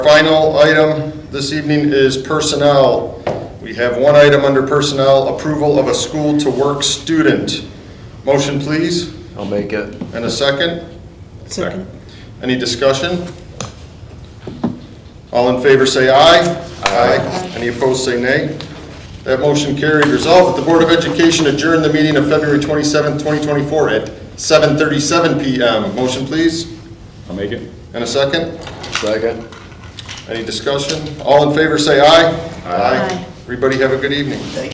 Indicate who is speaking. Speaker 1: Final item this evening is personnel. We have one item under personnel, approval of a school-to-work student. Motion, please,
Speaker 2: I'll make it.
Speaker 1: and a second.
Speaker 3: Second.
Speaker 1: Any discussion? All in favor, say aye. Aye. Any opposed, say nay. That motion carried. Resolved that the Board of Education adjourn the meeting of February 27th, 2024 at 7:37 PM. Motion, please,
Speaker 4: I'll make it.
Speaker 1: and a second.
Speaker 2: Second.
Speaker 1: Any discussion? All in favor, say aye. Aye. Everybody have a good evening.